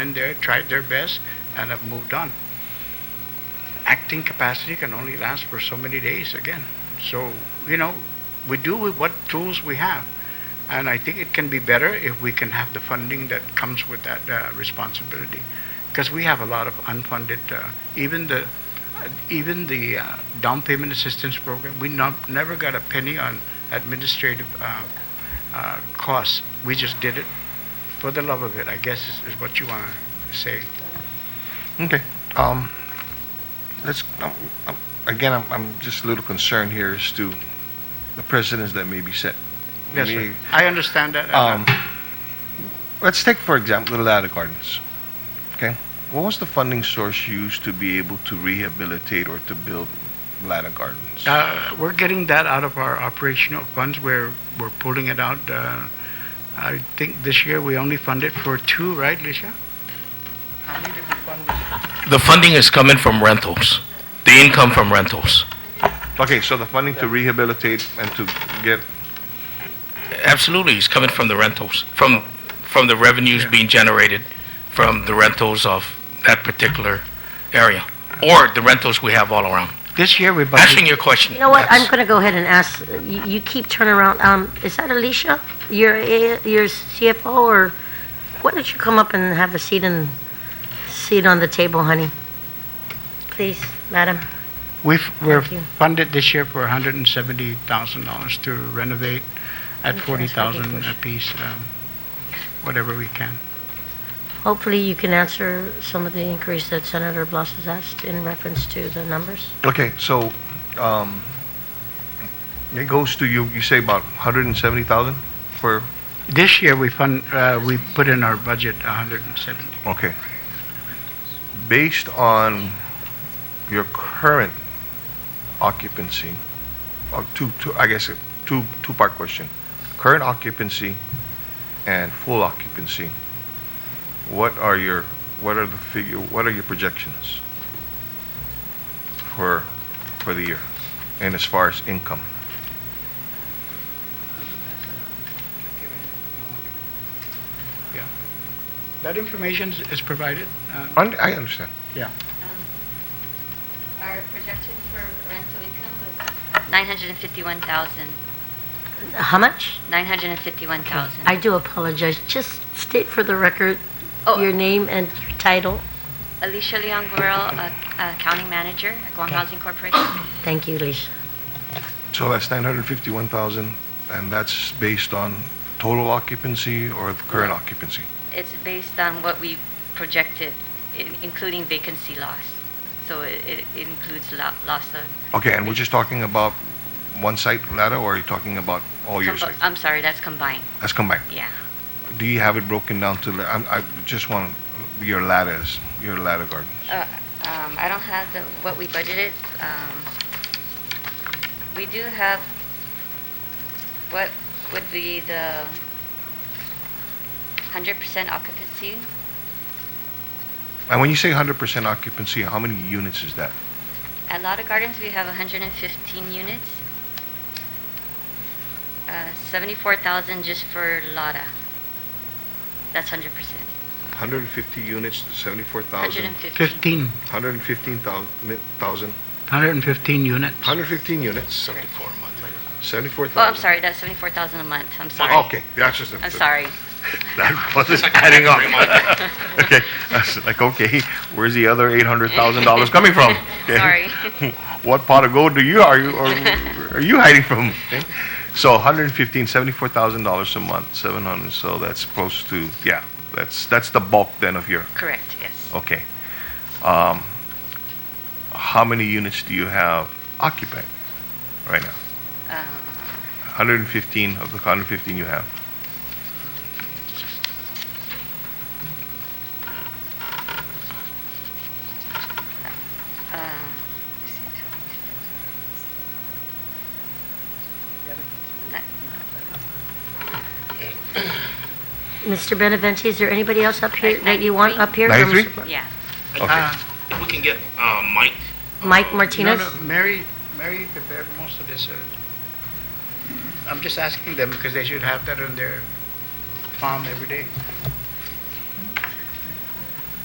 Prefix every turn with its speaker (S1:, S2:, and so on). S1: went there, tried their best, and have moved on. Acting capacity can only last for so many days again. So, you know, we do with what tools we have. And I think it can be better if we can have the funding that comes with that uh, responsibility. Because we have a lot of unfunded, uh, even the, uh, even the uh, down payment assistance program, we not, never got a penny on administrative uh, uh, costs. We just did it for the love of it, I guess is, is what you want to say.
S2: Okay, um, let's, um, um, again, I'm, I'm just a little concerned here as to the precedents that may be set.
S1: Yes,
S2: May-
S1: sir. I understand that. Uh,
S2: Um, let's take, for example, Little Ada Gardens, okay? What was the funding source used to be able to rehabilitate or to build Little Ada Gardens?
S1: Uh, We're getting that out of our operational funds. We're, we're pulling it out. uh, I think this year we only funded for two, right, Licia? How many did we fund this year?
S3: The funding is coming from rentals, the income from rentals.
S2: Okay, so the funding to rehabilitate and to get,
S3: Absolutely, it's coming from the rentals, from, from the revenues being generated from the rentals of that particular area, or the rentals we have all around.
S1: This year we
S3: Answering
S1: budgeted,
S3: your question.
S4: You know what, I'm
S3: yes.
S4: going to go ahead and ask, you you keep turning around, um, is that Alicia, your, A- your CFO, or why don't you come up and have a seat and, seat on the table, honey? Please, madam.
S1: we've, we're
S4: Thank you.
S1: funded this year for hundred and seventy thousand dollars to renovate at
S4: Okay,
S1: forty thousand
S4: that's
S1: a
S4: okay.
S1: piece, um, whatever we can.
S4: Hopefully you can answer some of the inquiries that Senator Blas has asked in reference to the numbers.
S2: okay, so, um, it goes to you, you say about hundred and seventy thousand for,
S1: This year we fund, uh, we put in our budget hundred and seventy.
S2: Okay. Based on your current occupancy, or two, two, I guess, a two, two-part question. Current occupancy and full occupancy, what are your, what are the figure, what are your projections for, for the year? And as far as income?
S1: Yeah. That information is- is provided. uh,
S2: Un- I understand.
S1: Yeah.
S5: Our projection for rental income was 951,000,
S4: How much?
S5: 951,000.
S4: I do apologize, just state for the record
S5: Oh.
S4: your name and your title.
S5: Alicia Leon Guerrero, uh, uh, County Manager at Guam Housing Corporation.
S4: Thank you, Alicia.
S2: So that's 951,000, and that's based on total occupancy or the current occupancy?
S5: It's based on what we projected, in- including vacancy loss. So it it includes lo- loss of...
S2: Okay, and we're just talking about one site, Lada, or are you talking about all your
S5: combi-
S2: sites?
S5: I'm sorry, that's combined,
S2: Let's come back.
S5: yeah.
S2: Do you have it broken down to, la- I'm- I just want your ladders, your ladder gardens?
S5: Uh, um, I don't have the, what we budgeted. Um, We do have, what would be the 100% occupancy?
S2: And when you say 100% occupancy, how many units is that?
S5: At Lotta Gardens, we have 115 units. Uh, 74,000 just for Lotta. That's 100%.
S2: 150 units, 74,000,
S5: 115.
S1: Fifteen,
S2: 115,000,
S1: hundred and fifteen units.
S2: 115 units,
S5: Oh,
S2: 74,000.
S5: I'm sorry, that's 74,000 a month,
S2: Oh,
S5: I'm sorry.
S2: that's just.
S5: I'm sorry.
S2: That wasn't adding up. Okay, I was like, okay, where's the other $800,000 coming from? Okay.
S5: Sorry.
S2: What pot of gold do you, are you, are are you hiding from? Okay. So 115, $74,000 a month, 700, so that's close to, yeah, that's, that's the bulk then of your,
S5: Correct, yes.
S2: okay. Um, How many units do you have occupied right now?
S5: Uh,
S2: 115 of the 115 you have?
S5: Uh,
S4: Mr. Benavente, is there anybody else up here that you want up here? Or
S2: 93?
S4: Mr. Bla-
S5: Yeah.
S2: Okay.
S3: If we can get uh, Mike.
S4: Mike
S1: No,
S4: Martinez?
S1: no, Mary, Mary prepared most of this. uh, I'm just asking them because they should have that on their farm every day.